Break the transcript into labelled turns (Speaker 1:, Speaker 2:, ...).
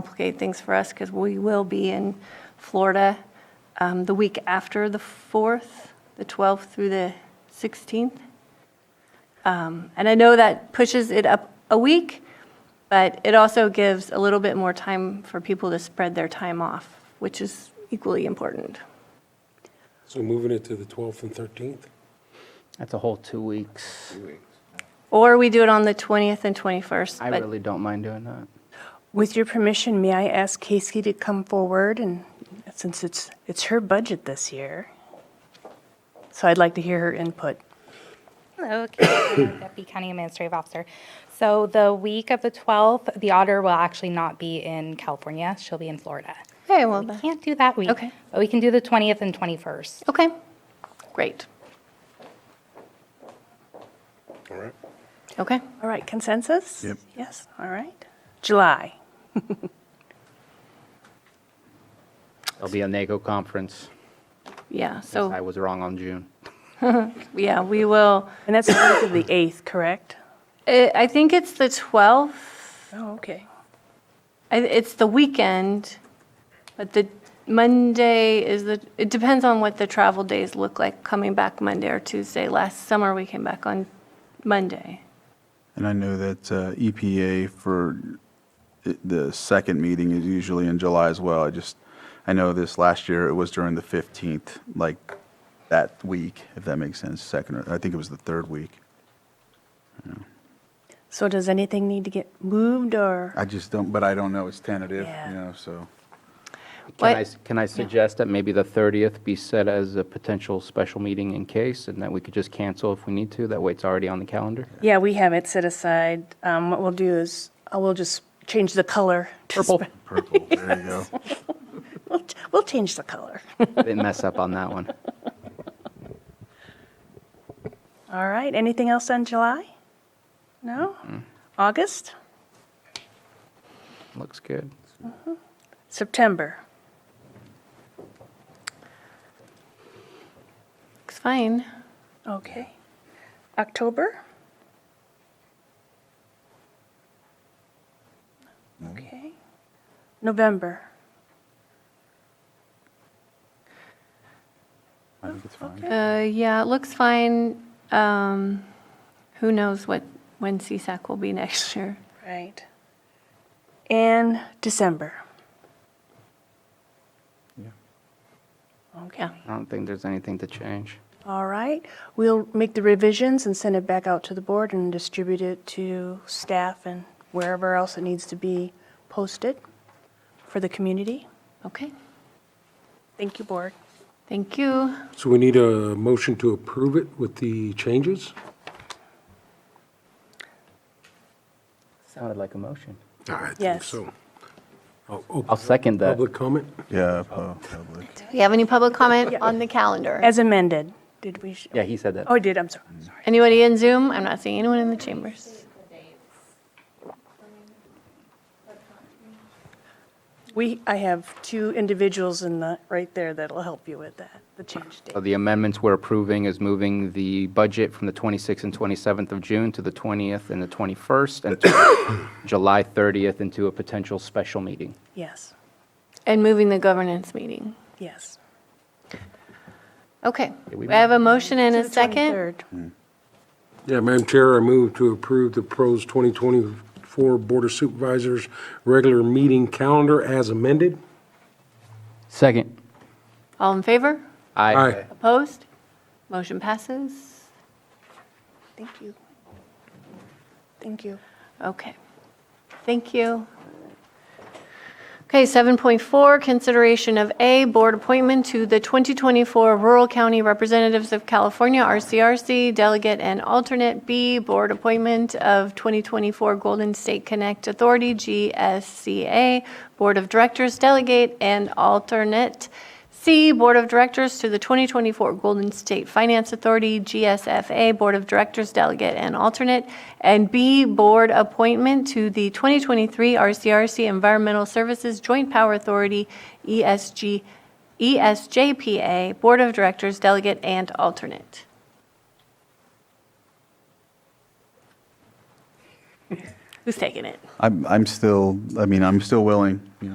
Speaker 1: complicate things for us because we will be in Florida um, the week after the 4th, the 12th through the 16th. Um, And I know that pushes it up a week, but it also gives a little bit more time for people to spread their time off, which is equally important.
Speaker 2: So moving it to the 12th and 13th?
Speaker 3: That's a whole two weeks.
Speaker 1: Or we do it on the 20th and 21st.
Speaker 3: I
Speaker 1: but-
Speaker 3: really don't mind doing that.
Speaker 4: With your permission, may I ask Casey to come forward and, since it's, it's her budget this year? So I'd like to hear her input.
Speaker 5: Hello, Kate Miller, Deputy County Administrative Officer. So the week of the 12th, the auditor will actually not be in California. She'll be in Florida.
Speaker 1: Okay, well,
Speaker 5: We
Speaker 1: then.
Speaker 5: can't do that week.
Speaker 1: Okay.
Speaker 5: But we can do the 20th and 21st.
Speaker 1: okay, great.
Speaker 2: All right.
Speaker 1: Okay.
Speaker 4: All right, consensus? Yep. Yes, all right. July,
Speaker 3: It'll be a NACO conference.
Speaker 1: Yeah,
Speaker 3: I
Speaker 1: so,
Speaker 3: was wrong on June.
Speaker 1: yeah, we will,
Speaker 4: and that's the week of the 8th, correct?
Speaker 1: I I think it's the 12th,
Speaker 4: Oh, okay.
Speaker 1: I- it's the weekend, but the Monday is the, it depends on what the travel days look like, coming back Monday or Tuesday. Last summer, we came back on Monday.
Speaker 6: And I know that uh, EPA for i- the second meeting is usually in July as well. I just, I know this last year, it was during the 15th, like that week, if that makes sense, second, or I think it was the third week.
Speaker 4: So does anything need to get moved or?
Speaker 6: I just don't, but I don't know, it's tentative,
Speaker 4: Yeah.
Speaker 6: you know, so.
Speaker 1: What-
Speaker 3: Can I, s- can I suggest that maybe the 30th be set as a potential special meeting in case, and that we could just cancel if we need to? That way it's already on the calendar.
Speaker 4: Yeah, we have it set aside. Um, What we'll do is, uh, we'll just change the color. to
Speaker 3: Purple.
Speaker 4: spe-
Speaker 6: Purple, there you go.
Speaker 4: We'll, we'll change the color.
Speaker 3: Didn't mess up on that one.
Speaker 4: All right, anything else on July? No? August?
Speaker 3: Looks good.
Speaker 4: September?
Speaker 1: Looks fine.
Speaker 4: Okay. October? Okay. November?
Speaker 6: I think it's fine.
Speaker 1: Uh, Yeah, it looks fine. Um, Who knows what, when CSAC will be next year?
Speaker 4: Right. And December? Okay.
Speaker 1: Yeah.
Speaker 3: I don't think there's anything to change.
Speaker 4: All right. We'll make the revisions and send it back out to the board and distribute it to staff and wherever else it needs to be posted for the community.
Speaker 1: Okay,
Speaker 4: Thank you, board.
Speaker 1: thank you.
Speaker 2: So we need a motion to approve it with the changes?
Speaker 3: Sounded like a motion.
Speaker 2: I think
Speaker 4: Yes.
Speaker 2: so. I'll
Speaker 3: I'll
Speaker 2: open
Speaker 3: second that.
Speaker 2: Public comment?
Speaker 6: Yeah, pu- public.
Speaker 1: Do you have any public comment on the calendar?
Speaker 4: As amended, did we? sh-
Speaker 3: Yeah, he said that.
Speaker 4: Oh, I did, I'm sorry.
Speaker 1: Anybody in Zoom? I'm not seeing anyone in the chambers.
Speaker 4: We, I have two individuals in the, right there that'll help you with that, the change
Speaker 3: Uh,
Speaker 4: date.
Speaker 3: The amendments we're approving is moving the budget from the 26th and 27th of June to the 20th and the 21st, and to July 30th into a potential special meeting.
Speaker 4: Yes,
Speaker 1: And moving the governance meeting.
Speaker 4: yes.
Speaker 1: Okay,
Speaker 3: Yeah, we
Speaker 1: I have a motion and a
Speaker 4: The
Speaker 1: second.
Speaker 4: 23rd.
Speaker 2: Yeah, Madam Chair, I move to approve the PROS 2024 Board of Supervisors regular meeting calendar as amended.
Speaker 3: Second.
Speaker 1: All in favor?
Speaker 2: Aye.
Speaker 1: Opposed? Motion passes.
Speaker 4: Thank you. Thank you.
Speaker 1: Okay, thank you. Okay, 7.4, consideration of A, board appointment to the 2024 Rural County Representatives of California, RCRC, delegate and alternate. B, board appointment of 2024 Golden State Connect Authority, GSCA, board of directors, delegate and alternate. C, Board of Directors to the 2024 Golden State Finance Authority, GSFA, Board of Directors Delegate and Alternate, and B, Board Appointment to the 2023 RCRC Environmental Services Joint Power Authority, E ESG, E ESJPA, Board of Directors Delegate and Alternate. Who's taking it?
Speaker 6: I'm, I'm still, I mean, I'm still willing, you know,